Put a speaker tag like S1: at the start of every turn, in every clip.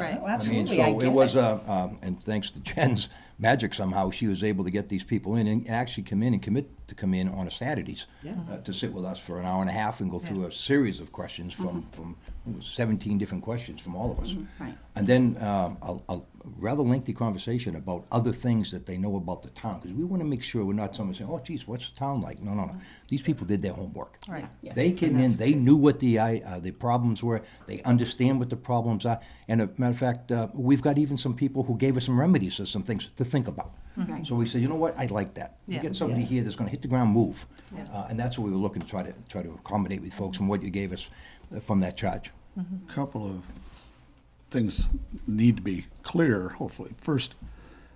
S1: Right.
S2: Well,
S1: I mean,
S3: Uh, I mean,
S2: Oh, Absolutely, I
S3: so
S2: get
S3: it was,
S2: it.
S3: uh, um, and thanks to Jen's magic somehow, she was able to get these people in and actually come in and commit to come in on a Saturdays.
S2: Yeah.
S3: uh, To sit with us for an hour and a half and go through a series of questions
S2: Mm-hmm.
S3: from, from I think it was seventeen different questions from all of us.
S2: Mm-hmm. Right.
S3: And then um, a, a rather lengthy conversation about other things that they know about the town, because we want to make sure we're not someone saying, oh geez, what's the town like? No, no,
S2: Mm-hmm.
S3: no. These people did their homework.
S1: Right.
S2: Yeah.
S3: They came in, they knew what the, i- uh, the problems were, they understand what the problems are. And a matter of fact, uh, we've got even some people who gave us some remedies or some things to think about.
S2: Right.
S3: So we said, you know what, I like that.
S1: Hmm.
S3: You
S1: Yeah.
S3: get somebody
S2: Yeah.
S3: here that's gonna hit the ground, move.
S1: Yeah.
S3: Uh, And that's what we were looking to try to, try to accommodate with folks from what you gave us uh, from that charge.
S4: couple of things need to be clear, hopefully. First,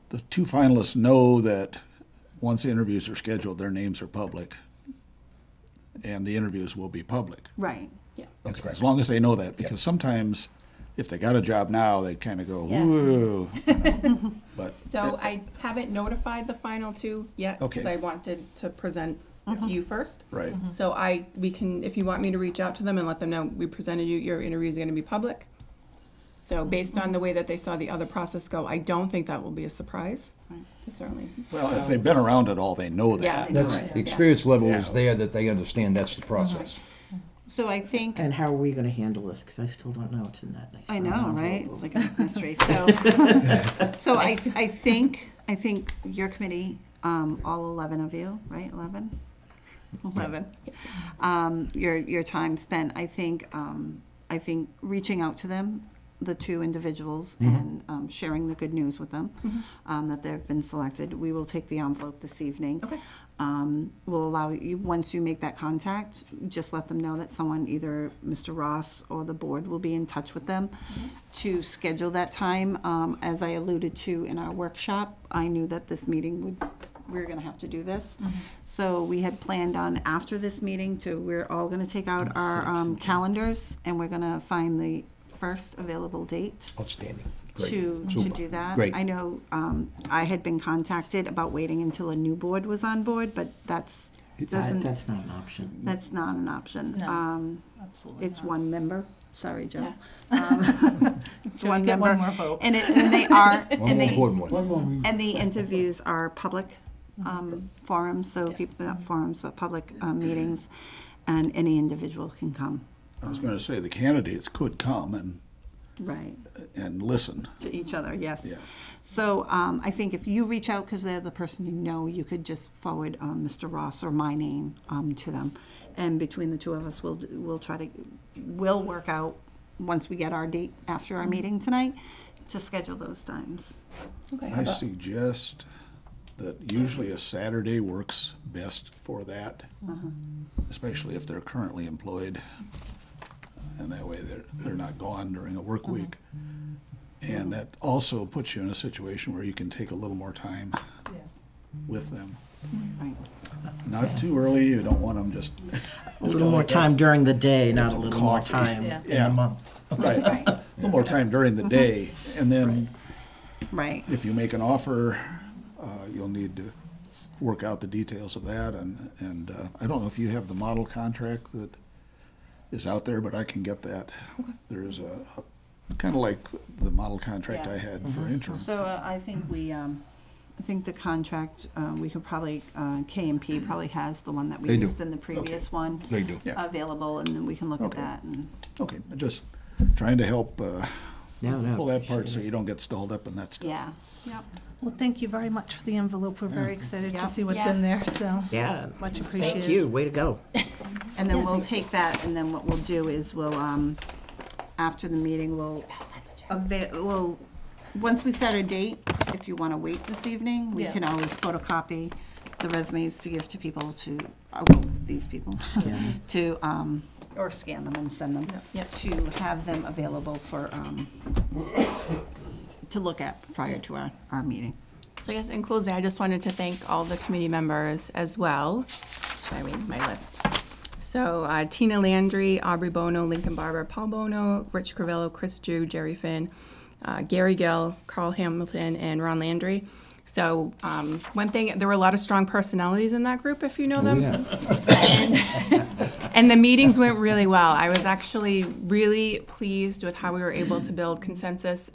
S4: the two finalists know that once the interviews are scheduled, their names are public, and the interviews will be public.
S5: Right, yeah.
S3: That's
S4: As long as they know that, because sometimes if they got a job now, they kind of go,
S5: Yeah.
S4: whoa. you know. But
S5: So I haven't notified the final two yet, because
S4: Okay.
S5: I wanted to present to you first.
S4: Right. Mhm.
S5: So I, we can, if you want me to reach out to them and let them know, we presented you, your interview's gonna be public. So based on the way that they saw the other process go, I don't think that will be a surprise, certainly.
S4: well, if they've been around at all, they know
S5: Yeah.
S4: that.
S5: they know
S3: That's,
S5: it.
S3: the
S5: Yeah.
S3: experience level is there that they understand that's the
S1: Mm-hmm.
S3: process.
S1: So I think,
S2: And how are we gonna handle this? Because I still don't know what's in that nice.
S1: I
S2: brown
S1: know,
S2: envelope.
S1: right? It's like a mystery. So, so I, I think, I think your committee, um, all 11 of you, right, 11? 11. Um, your, your time spent, I think, um, I think reaching out to them, the two individuals,
S3: Mm-hmm.
S1: and um, sharing the good news with them,
S2: Mm-hmm.
S1: um, that they've been selected. We will take the envelope this evening.
S5: Okay.
S1: Um, will allow you, once you make that contact, just let them know that someone, either Mr. Ross or the board, will be in touch with them to schedule that time. Um, as I alluded to in our workshop, I knew that this meeting would, we were gonna have to do this. So we had planned on after this meeting to, we're all gonna take out our, um, calendars and we're gonna find the first available date
S3: Outstanding. Great.
S1: to, to
S3: Super.
S1: do that.
S3: Great.
S1: I know, um, I had been contacted about waiting until a new board was on board, but that's,
S2: That-
S1: doesn't,
S2: That's not an option.
S1: that's not an option. Um,
S6: Absolutely.
S1: it's one member, sorry, Joe. Um, It's
S6: Joe,
S1: one
S6: you get one
S1: member.
S6: more vote.
S1: And it, and they are,
S3: One
S1: and
S3: more
S1: they,
S3: important one.
S1: and the interviews are public
S6: Mm-hmm.
S1: um, forums, so people, not forums, but public um, meetings, and any individual can come.
S4: I was going to say the candidates could come and,
S1: Right.
S4: and listen.
S1: To each other, yes.
S4: Yeah.
S1: So um, I think if you reach out, because they're the person you know, you could just forward um, Mr. Ross or my name um, to them. And between the two of us, we'll, d- we'll try to, we'll work out, once we get our date after our meeting tonight, to schedule those times.
S5: Okay.
S4: I suggest that usually a Saturday works best for that, especially if they're currently employed. uh, And that way they're, they're not gone during a work week. And that also puts you in a situation where you can take a little more time with them.
S1: Right.
S4: Not too early, you don't want them just,
S2: A little more time during the day, not a
S4: some
S2: little more
S4: coffee.
S2: time
S6: Yeah.
S2: in
S4: Yeah.
S2: the month.
S4: right, a little more time during the day. And then
S1: Right,
S4: if you make an offer, uh, you'll need to work out the details of that, and, and uh, I don't know if you have the model contract that is out there, but I can get that. There is a, kind of like the model contract
S1: Yeah.
S4: I had for interim.
S1: so uh, I think we, um, I think the contract, uh, we could probably, uh, KMP probably has the one that we
S3: They do.
S1: used in the previous one.
S3: They do.
S4: Yeah.
S1: Available, and then we can look at
S4: Okay.
S1: that and.
S4: Okay, just trying to help uh,
S2: No, no.
S4: pull that part so you don't get stalled up in that stuff.
S1: Yeah. Yep.
S6: Well, thank you very much for the envelope. We're very excited
S1: Yeah.
S6: to see what's in there, so
S2: Yeah,
S6: much
S2: thank
S6: appreciated.
S2: you, way to go.
S1: And then we'll take that, and then what we'll do is we'll, um, after the meeting, we'll, ava- we'll, once we set a date, if you want to wait this evening, we
S6: Yeah.
S1: can always photocopy the resumes to give to people to, oh, these people, to, um, or scan them and send them, to have them available for, um, to look at prior to our, our meeting.
S5: So I guess in closing, I just wanted to thank all the committee members as well. Should I read my list? So uh, Tina Landry, Aubrey Bono, Lincoln Barber, Paul Bono, Rich Cravello, Chris Drew, Jerry Finn, uh, Gary Gill, Carl Hamilton, and Ron Landry. So um, one thing, there were a lot of strong personalities in that group, if you know them. And the meetings went really well. I was actually really pleased with how we were able to build consensus